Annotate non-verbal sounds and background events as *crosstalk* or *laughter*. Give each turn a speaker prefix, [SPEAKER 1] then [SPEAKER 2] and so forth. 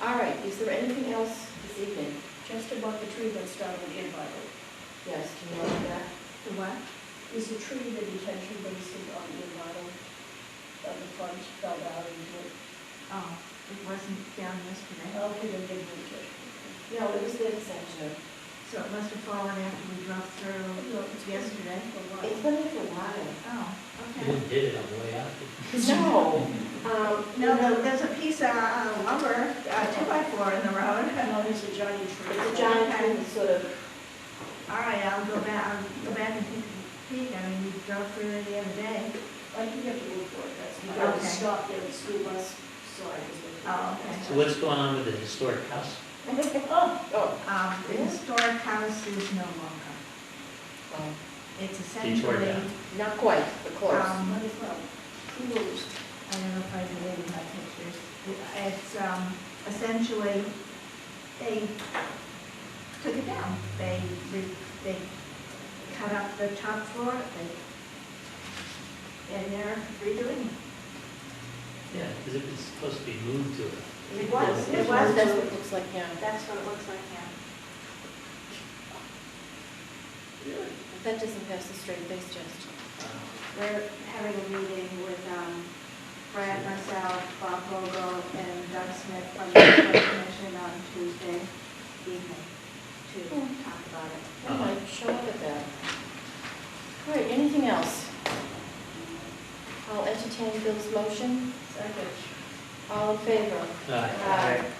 [SPEAKER 1] All right, is there anything else this evening?
[SPEAKER 2] Just about the tree that started in Bible.
[SPEAKER 1] Yes, do you know that?
[SPEAKER 2] The what? Is the tree the detention basin on in Bible? That the front fell down into it.
[SPEAKER 3] Oh, it wasn't down yesterday,
[SPEAKER 2] How could it get moved? it?
[SPEAKER 1] No, it was the center.
[SPEAKER 3] so it must have fallen after we drove through
[SPEAKER 2] No, it's
[SPEAKER 3] yesterday.
[SPEAKER 2] For what?
[SPEAKER 1] It's been there for a
[SPEAKER 3] *laughs*
[SPEAKER 1] while.
[SPEAKER 3] Oh,
[SPEAKER 4] You
[SPEAKER 3] okay.
[SPEAKER 4] didn't did it on the way out.
[SPEAKER 1] No, um,
[SPEAKER 3] No, there- there's a piece of uh, lumber, uh, two by four in the road. *laughs*
[SPEAKER 2] No, it's a giant tree.
[SPEAKER 1] It's a giant tree that's sort of,
[SPEAKER 3] All right, I'll go back, I'll go back and take a peek, I mean, we drove through it the other day.
[SPEAKER 2] I can get the wood for it, that's, you
[SPEAKER 3] Okay.
[SPEAKER 2] gotta stop there, the school bus, sorry. is looking at
[SPEAKER 3] Oh,
[SPEAKER 2] that.
[SPEAKER 3] okay.
[SPEAKER 4] So what's going on with the historic house?
[SPEAKER 2] Oh,
[SPEAKER 1] oh,
[SPEAKER 3] Um, the historic house is no longer,
[SPEAKER 1] um,
[SPEAKER 3] it's
[SPEAKER 4] They tore it
[SPEAKER 3] essentially,
[SPEAKER 4] down.
[SPEAKER 1] not quite, but close.
[SPEAKER 3] um,
[SPEAKER 2] might as well. Who knows?
[SPEAKER 3] I don't know if I can read my pictures. It's um, essentially, they took it down. They, re- they cut up the top floor, they, and they're redoing it.
[SPEAKER 4] Yeah, because it was supposed to be moved to a
[SPEAKER 3] It was, it was,
[SPEAKER 1] That's what it looks like now.
[SPEAKER 3] that's what it looks like now.
[SPEAKER 1] That doesn't pass the straight face test.
[SPEAKER 3] Uh-huh. We're having a meeting with um, Brad, myself, Bob Vogel, and Doug Smith from the Historic Commission on Tuesday evening to talk about it.
[SPEAKER 1] I might show up at that. All right, anything else? I'll entertain Bill's motion.
[SPEAKER 2] Second.
[SPEAKER 1] All in favor?
[SPEAKER 4] Aye.
[SPEAKER 1] Aye.